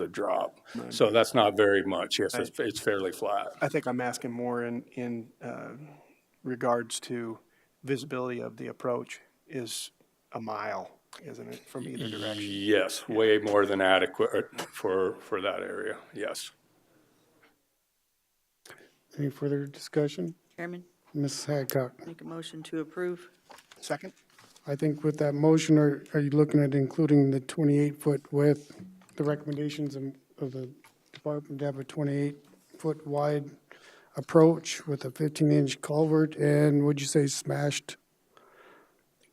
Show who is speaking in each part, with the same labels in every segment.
Speaker 1: the drop. So that's not very much. Yes, it's, it's fairly flat.
Speaker 2: I think I'm asking more in, in uh, regards to visibility of the approach is a mile, isn't it, from either direction?
Speaker 1: Yes, way more than adequate uh, for, for that area, yes.
Speaker 3: Any further discussion?
Speaker 4: Chairman,
Speaker 3: Mrs. Hadcock,
Speaker 4: make a motion to approve.
Speaker 2: Second?
Speaker 3: I think with that motion, are, are you looking at including the 28-foot width? The recommendations of of the department to have a 28-foot wide approach with a 15-inch culvert and would you say smashed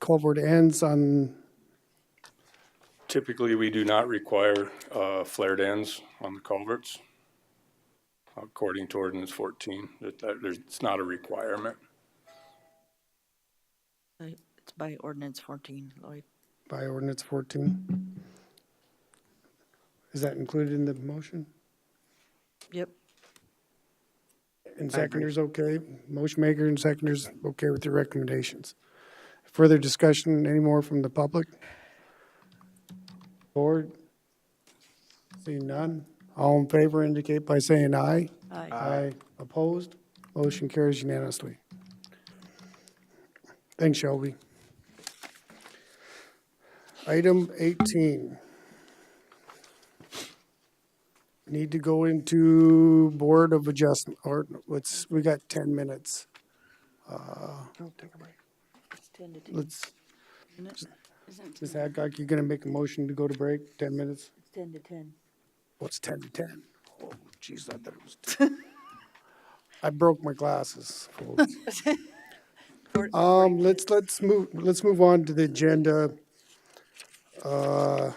Speaker 3: culvert ends on,
Speaker 1: Typically, we do not require uh, flared ends on the culverts, according to ordinance 14, that, that, there's, it's not a requirement.
Speaker 4: Uh, It's by ordinance 14, Lloyd.
Speaker 3: by ordinance 14? Is that included in the motion?
Speaker 4: Yep.
Speaker 3: And seconders okay? Motion maker and seconders okay with your recommendations? Further discussion, any more from the public? Board? Seeing none? All in favor indicate by saying aye.
Speaker 4: Aye.
Speaker 3: Aye. Opposed? Motion carries unanimously. Thanks, Shelby. Item 18. Need to go into Board of Adjustment, or let's, we got 10 minutes.
Speaker 2: No, take a break.
Speaker 4: It's 10 to 10,
Speaker 3: Let's,
Speaker 4: isn't it? Isn't it
Speaker 3: Ms. Hadcock, you gonna make a motion to go to break, 10 minutes?
Speaker 4: 10 to 10?
Speaker 3: What's 10 to 10? Oh, jeez, I thought it was 10. I broke my glasses, folks.
Speaker 4: Or-
Speaker 3: Um, let's, let's move, let's move on to the agenda. Uh,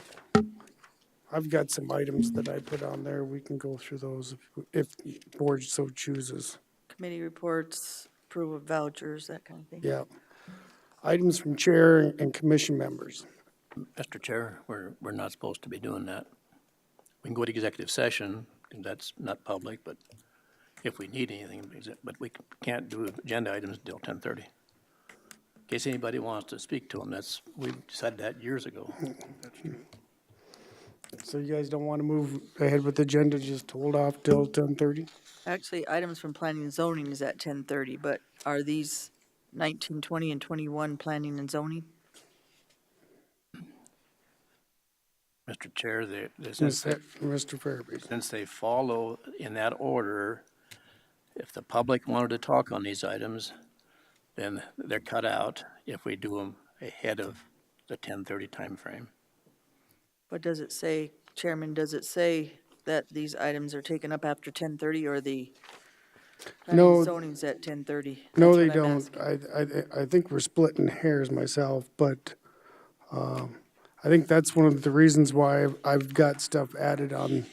Speaker 3: I've got some items that I put on there. We can go through those if, if the board so chooses.
Speaker 4: Committee reports, approval of vouchers, that kind of thing.
Speaker 3: Yeah. Items from chair and commission members.
Speaker 5: Mr. Chair, we're, we're not supposed to be doing that. We can go to executive session, and that's not public, but if we need anything, but we can't do agenda items until ten-thirty. In case anybody wants to speak to them, that's, we decided that years ago.
Speaker 3: So you guys don't want to move ahead with the agenda, just hold off till ten thirty?
Speaker 4: Actually, items from planning and zoning is at 10:30, but are these 19, 20, and 21 planning and zoning?
Speaker 5: Mr. Chair, they, they- since, they-
Speaker 3: Mr. Fairby.
Speaker 5: since they follow in that order, if the public wanted to talk on these items, then they're cut out if we do them ahead of the ten-thirty timeframe.
Speaker 4: What does it say, Chairman, does it say that these items are taken up after 10:30 or the planning
Speaker 3: No.
Speaker 4: and zoning's at 10:30?
Speaker 3: No,
Speaker 4: That's
Speaker 3: they
Speaker 4: what I'm
Speaker 3: don't.
Speaker 4: asking.
Speaker 3: I, I, I think we're splitting hairs myself, but, um, I think that's one of the reasons why I've- I've got stuff added on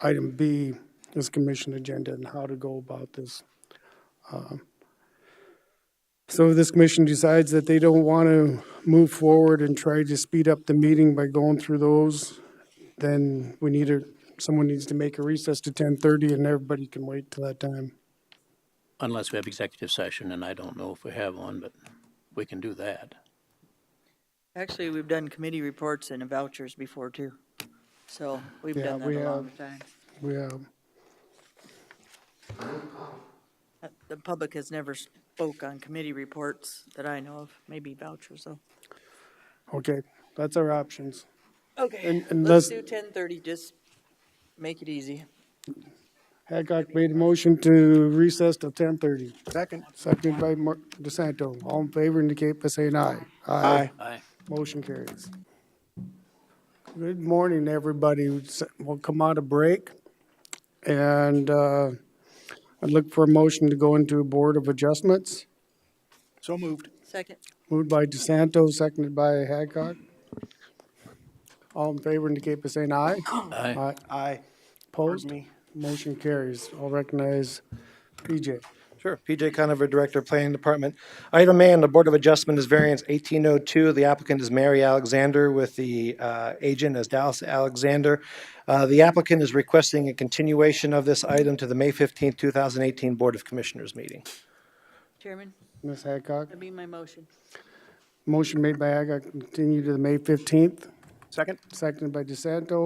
Speaker 3: item B, this commission agenda and how to go about this. Um, So if this commission decides that they don't want to move forward and try to speed up the meeting by going through those, then we need a, someone needs to make a recess to ten thirty and everybody can wait till that time.
Speaker 5: Unless we have executive session, and I don't know if we have one, but we can do that.
Speaker 4: Actually, we've done committee reports and vouchers before too. So we've
Speaker 3: Yeah,
Speaker 4: done that
Speaker 3: we
Speaker 4: a long
Speaker 3: have.
Speaker 4: time.
Speaker 3: We have,
Speaker 4: Uh, The public has never spoke on committee reports that I know of, maybe vouchers though.
Speaker 3: okay, that's our options.
Speaker 4: Okay,
Speaker 3: And- and
Speaker 4: let's do
Speaker 3: let's-
Speaker 4: ten thirty, just make it easy.
Speaker 3: Hadcock made a motion to recess till ten thirty,
Speaker 2: Second?
Speaker 3: seconded by Mark DeSanto. All in favor indicate by saying aye.
Speaker 2: Aye.
Speaker 5: Aye.
Speaker 3: Motion carries. Good morning, everybody. We'll come out of break. And, uh, I'd look for a motion to go into a Board of Adjustments.
Speaker 2: So moved.
Speaker 4: Second,
Speaker 3: Moved by DeSanto, seconded by Hadcock. All in favor indicate by saying aye.
Speaker 5: Aye.
Speaker 2: Aye.
Speaker 3: Opposed?
Speaker 2: me.
Speaker 3: Motion carries. I'll recognize PJ.
Speaker 6: Sure. PJ Conover, Director of Planning Department. Item A on the Board of Adjustment is variance 1802. The applicant is Mary Alexander with the uh, agent as Dallas Alexander. Uh, The applicant is requesting a continuation of this item to the May 15, 2018 Board of Commissioners meeting.
Speaker 4: Chairman,
Speaker 3: Ms. Hadcock?
Speaker 4: that'd be my motion.
Speaker 3: Motion made by Haggard, continue to the May 15th,
Speaker 2: Second?
Speaker 3: seconded by DeSanto.